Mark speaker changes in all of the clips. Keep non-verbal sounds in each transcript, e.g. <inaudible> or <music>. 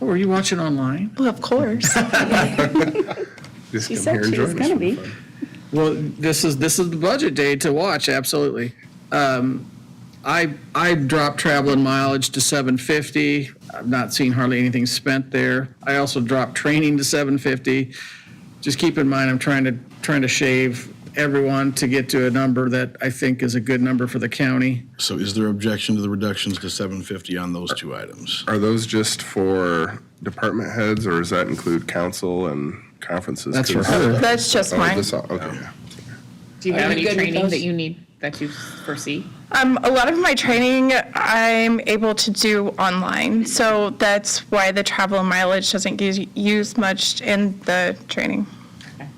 Speaker 1: Were Oh, you watching online?
Speaker 2: Well, of course.
Speaker 3: Just
Speaker 2: She
Speaker 3: come here
Speaker 2: said
Speaker 3: and
Speaker 2: she
Speaker 3: join
Speaker 2: was
Speaker 3: us
Speaker 2: going to
Speaker 3: for
Speaker 2: be.
Speaker 3: fun.
Speaker 1: Well, this is this is the budget day to watch. Absolutely. Um, I I dropped traveling mileage to 750. I've not seen hardly anything spent there. I also dropped training to 750. Just keep in mind, I'm trying to trying to shave everyone to get to a number that I think is a good number for the county.
Speaker 4: So is there objection to the reductions to 750 on those two items?
Speaker 3: Are those just for department heads, or does that include council and conferences?
Speaker 1: That's for
Speaker 3: 'Cause-
Speaker 1: her.
Speaker 2: That's just
Speaker 3: Oh,
Speaker 2: mine.
Speaker 3: this- Okay.
Speaker 5: Do you
Speaker 2: Are
Speaker 5: have
Speaker 2: you
Speaker 5: any
Speaker 2: good with
Speaker 5: training
Speaker 2: those?
Speaker 5: that you need, that you foresee?
Speaker 2: Um, a lot of my training I'm able to do online, so that's why the travel mileage doesn't use, use much in the training.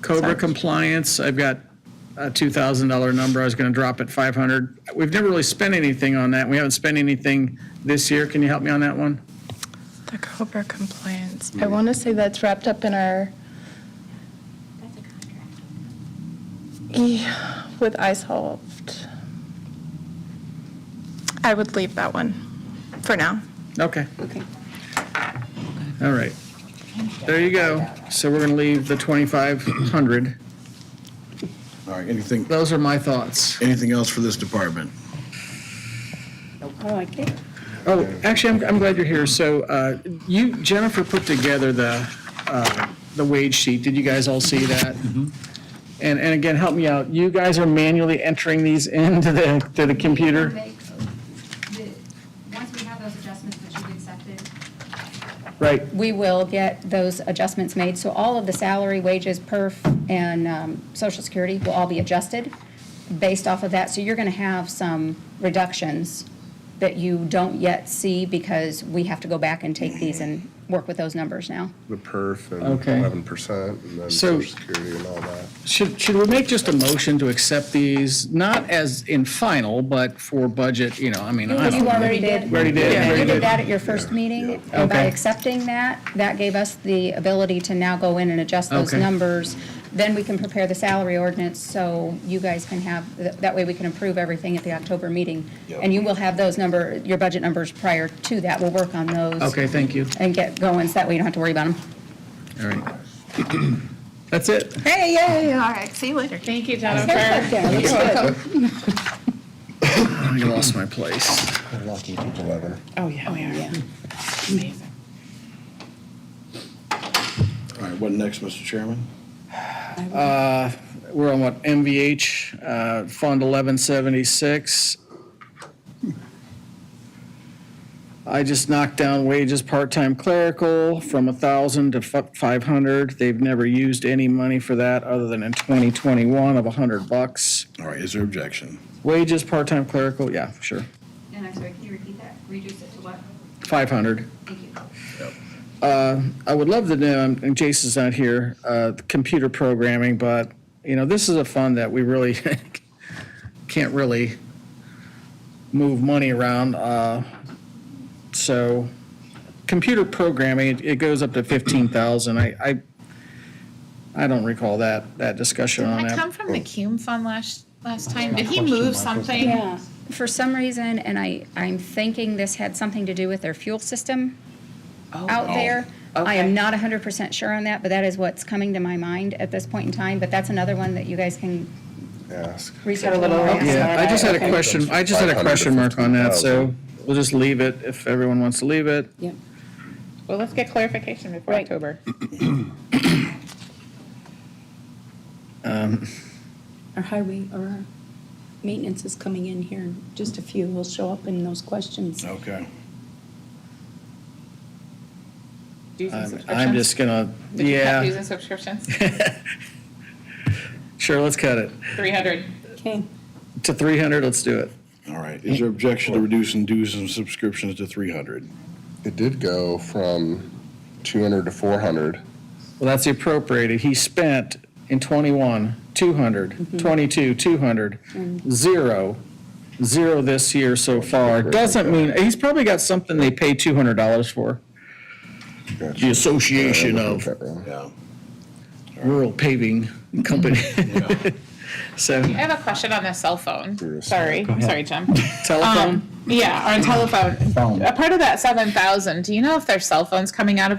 Speaker 1: Cobra compliance, I've got a $2,000 number, I was going to drop at 500. We've never really spent anything on that, we haven't spent anything this year, can you help me on that one?
Speaker 2: The Cobra compliance. I want to say that's wrapped up in our
Speaker 6: That's a contract.
Speaker 2: yeah, with iSolved. I would leave that one for now.
Speaker 1: Okay. All right. There you go, so we're going to leave the 2,500.
Speaker 4: All right, anything,
Speaker 1: Those are my thoughts.
Speaker 4: anything else for this department?
Speaker 1: Oh, actually, I'm, I'm glad you're here, so uh, you, Jennifer put together the, uh, the wage sheet, did you guys all see that? And, and again, help me out, you guys are manually entering these into the, to the computer?
Speaker 6: They- the- Once we have those adjustments that you've accepted,
Speaker 1: Right,
Speaker 7: we will get those adjustments made. So all of the salary, wages, perf, and um, social security will all be adjusted based off of that. So you're going to have some reductions that you don't yet see because we have to go back and take these and work with those numbers now.
Speaker 3: The perf and
Speaker 1: Okay.
Speaker 3: eleven percent, and then
Speaker 1: So-
Speaker 3: social security and all that.
Speaker 1: should, should we make just a motion to accept these, not as in final, but for budget, you know, I mean, I
Speaker 7: You
Speaker 1: don't know.
Speaker 7: already did.
Speaker 1: We already did, we already
Speaker 7: You
Speaker 1: did.
Speaker 7: did that at your first meeting, and by
Speaker 1: Okay.
Speaker 7: accepting that, that gave us the ability to now go in and adjust those
Speaker 1: Okay.
Speaker 7: numbers. Then we can prepare the salary ordinance, so you guys can have, th- that way we can approve everything at the October meeting. And you will have those number, your budget numbers prior to that, we'll work on those.
Speaker 1: Okay, thank you,
Speaker 7: And get going, so that way you don't have to worry about them.
Speaker 1: all right. <clears throat> That's it.
Speaker 7: Hey, yay!
Speaker 2: All right, see you later.
Speaker 5: Thank you, Jennifer.
Speaker 7: Haircut there, that's good.
Speaker 1: I lost my place.
Speaker 5: Oh, yeah, we are. Amazing.
Speaker 4: All right, what next, Mr. Chairman?
Speaker 1: Uh, We're on what, MVH, uh, Fund 1176. I just knocked down wages, part-time clerical, from 1,000 to fi- 500. They've never used any money for that, other than in 2021 of 100 bucks.
Speaker 4: All right, is there objection?
Speaker 1: Wages, part-time clerical, yeah, sure,
Speaker 6: and I'm sorry, can you repeat that? Reduce it to what?
Speaker 1: 500.
Speaker 6: Thank you.
Speaker 1: I would love to know, and Jason's not here, uh, the computer programming, but, you know, this is a fund that we really <laughs> can't really move money around. uh, So, computer programming, it- it goes up to 15,000. I, I, I don't recall that, that discussion on
Speaker 5: Didn't that come
Speaker 1: that.
Speaker 5: from the Cume Fund last, last time? Did he move something?
Speaker 7: Yeah, for some reason, and I, I'm thinking this had something to do with their fuel system out there. I
Speaker 5: Okay.
Speaker 7: am not hundred percent sure on that, but that is what's coming to my mind at this point in time, but that's another one that you guys can
Speaker 3: Ask.
Speaker 7: research a little. more.
Speaker 1: Yeah, I just had a question, I just had a
Speaker 3: 500 to
Speaker 1: question mark on that,
Speaker 3: 15,000.
Speaker 1: so we'll just leave it if everyone wants to leave it.
Speaker 5: Well, let's get clarification before
Speaker 7: Right.
Speaker 5: October.
Speaker 8: Our highway or our maintenance is coming in here, in just a few will show up in those questions.
Speaker 4: Okay.
Speaker 5: Dues and
Speaker 1: I'm-
Speaker 5: subscriptions?
Speaker 1: I'm just gonna,
Speaker 5: Did you cut dues
Speaker 1: yeah,
Speaker 5: and subscriptions?
Speaker 1: sure, let's cut it.
Speaker 5: 300.
Speaker 8: Okay,
Speaker 1: To 300, let's do it.
Speaker 4: All right, is there objection to reducing dues and subscriptions to 300?
Speaker 3: It did go from two hundred to four hundred.
Speaker 1: Well, that's the appropriated. He spent in '21, 200, '22, 200, zero, zero this year so far. Doesn't mean, he's probably got something they pay $200 for. Uh, The Association
Speaker 3: Oh.
Speaker 1: of
Speaker 4: Yeah.
Speaker 1: Rural Paving <laughs> Company. So, <laughs>
Speaker 5: I have a question on the cell phone.
Speaker 3: You're a
Speaker 5: Sorry, sorry, Jim.
Speaker 1: telephone?
Speaker 5: Yeah, on telephone.
Speaker 9: Phone.
Speaker 5: A part of that seven thousand, do you know if their cell phones coming out of